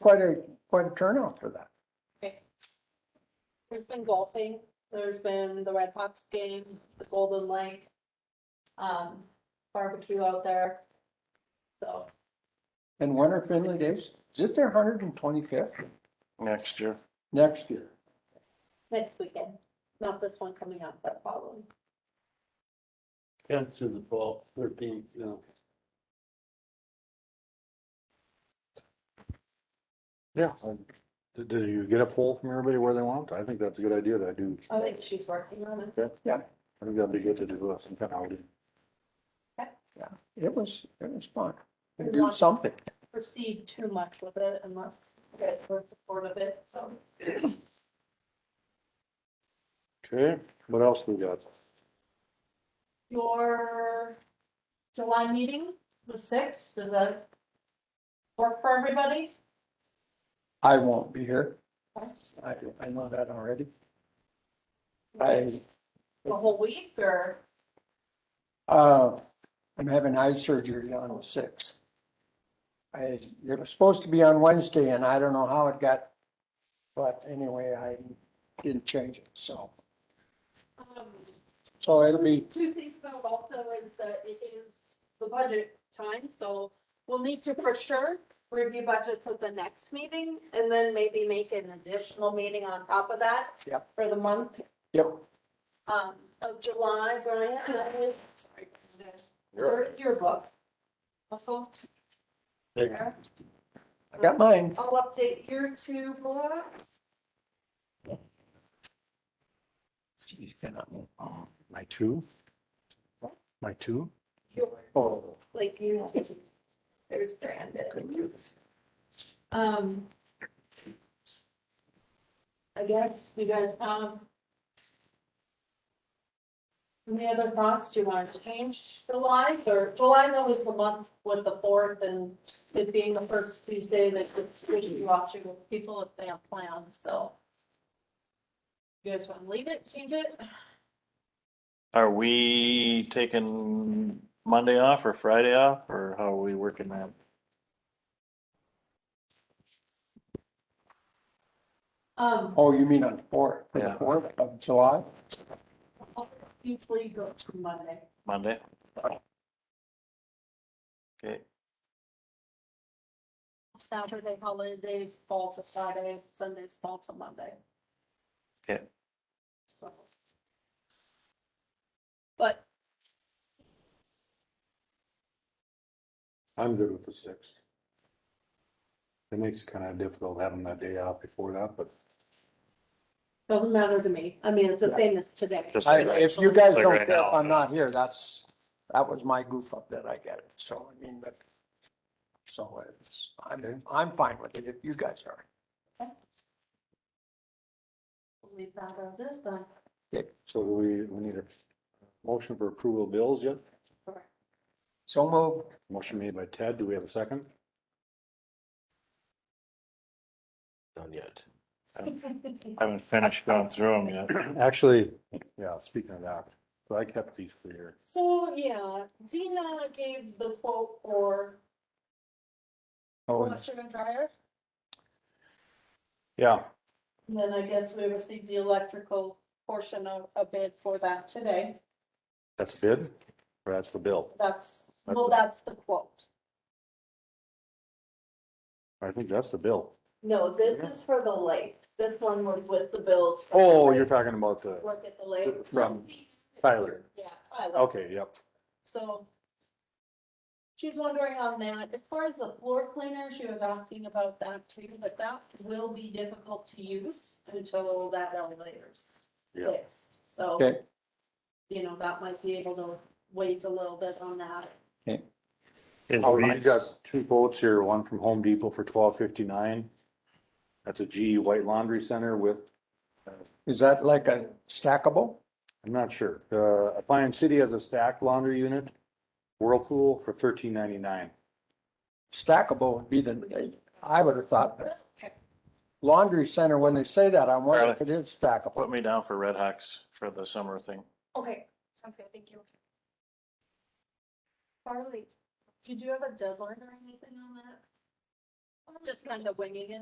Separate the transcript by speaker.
Speaker 1: quite a, quite a turnout for that.
Speaker 2: There's been golfing, there's been the Red Hawks game, the Golden Lake, um, barbecue out there. So,
Speaker 1: And when are Finley Days? Is it their hundred and twenty-fifth
Speaker 3: next year.
Speaker 1: next year?
Speaker 2: next weekend, not this one coming up, but following.
Speaker 4: Tenth through the twelfth, thirteenth, you know.
Speaker 3: Yeah. Did, did you get a poll from everybody where they want? I think that's a good idea that I do.
Speaker 2: I think she's working on it.
Speaker 3: I think that'd be good to do uh, some kind of, outing.
Speaker 1: It was, it was fun.
Speaker 2: We
Speaker 1: Do
Speaker 2: want-
Speaker 1: something.
Speaker 2: Proceed too much with it unless you guys were in support of it, so.
Speaker 3: okay, what else we got?
Speaker 2: Your July meeting, the sixth, does that work for everybody?
Speaker 1: I won't be here. I, I know that already. I,
Speaker 2: The whole week or?
Speaker 1: uh, I'm having eye surgery on the sixth. I, it was supposed to be on Wednesday and I don't know how it got, but anyway, I didn't change it, so.
Speaker 2: um,
Speaker 1: So it'll be,
Speaker 2: two things about Walta is that it is the budget time, so we'll need to for sure review budgets at the next meeting and then maybe make an additional meeting on top of that.
Speaker 1: Yep.
Speaker 2: For the month,
Speaker 1: yep,
Speaker 2: um, of July, Brian, and I would- sorry. Where's your book? Russell? There.
Speaker 1: I got mine.
Speaker 2: I'll update your two books.
Speaker 1: Jeez, cannot move.
Speaker 3: Um, My two? My two?
Speaker 2: Your
Speaker 1: Oh,
Speaker 2: like you, there's branded. Um. I guess you guys, um. Any other thoughts? Do you want to change July or July's always the month with the fourth and it being the first Tuesday that it's usually watching with people if they have plans, so. You guys want to leave it, change it?
Speaker 5: Are we taking Monday off or Friday off, or how are we working that?
Speaker 2: Um.
Speaker 1: oh, you mean on the fourth, for the
Speaker 5: Yeah.
Speaker 1: fourth of July?
Speaker 2: Usually go to Monday.
Speaker 5: Monday? Okay,
Speaker 2: Saturday holidays fall to Friday, Sundays fall to Monday.
Speaker 5: Okay.
Speaker 2: So. But
Speaker 3: I'm good with the sixth. It makes it kind of difficult having that day out before that, but
Speaker 2: doesn't matter to me. I mean, it's the same as today.
Speaker 5: Just-
Speaker 1: I, if you guys
Speaker 5: It's like
Speaker 1: don't
Speaker 5: right
Speaker 1: care if
Speaker 5: now.
Speaker 1: I'm not here, that's, that was my goof up that I get it, so I mean, but. So it's, I'm, I'm fine with it if you guys are.
Speaker 2: Leave that as is then.
Speaker 3: so do we, we need a motion for approval of bills yet?
Speaker 1: So move,
Speaker 3: Motion made by Ted. Do we have a second?
Speaker 4: Done yet.
Speaker 5: I haven't finished going through them yet.
Speaker 3: Actually, yeah, speaking of that, so I kept these clear.
Speaker 2: So, yeah, Dina gave the quote for
Speaker 1: oh,
Speaker 2: washer and dryer.
Speaker 3: Yeah,
Speaker 2: And Then I guess we received the electrical portion of a bid for that today.
Speaker 3: that's bid, or that's the bill.
Speaker 2: That's,
Speaker 3: That's
Speaker 2: well,
Speaker 3: it.
Speaker 2: that's the quote.
Speaker 3: I think that's the bill.
Speaker 2: No, this is for the lake. This one was with the bills. for the
Speaker 3: Oh,
Speaker 2: lake.
Speaker 3: you're talking about the,
Speaker 2: Work at the lake.
Speaker 3: From Tyler.
Speaker 2: Yeah, Tyler.
Speaker 3: okay, yep.
Speaker 2: So she's wondering on that. As far as the floor cleaner, she was asking about that too, but that will be difficult to use until that elevator's
Speaker 3: Yeah.
Speaker 2: fixed. So,
Speaker 1: Okay.
Speaker 2: you know, that might be able to wait a little bit on that.
Speaker 5: Is
Speaker 3: Oh, you
Speaker 5: these-
Speaker 3: got two quotes here, one from Home Depot for twelve fifty-nine. That's a G White Laundry Center with,
Speaker 1: is that like a stackable?
Speaker 3: I'm not sure, uh, Appian City has a stacked laundry unit. Whirlpool for thirteen ninety-nine.
Speaker 1: Stackable would be the, I would have thought, but laundry center, when they say that, I'm wondering if it is stackable.
Speaker 5: Put me down for Red Hawks for the summer thing.
Speaker 2: Okay, sounds good. Thank you. Farley, did you have a deadline or anything on that? just kind of winging it.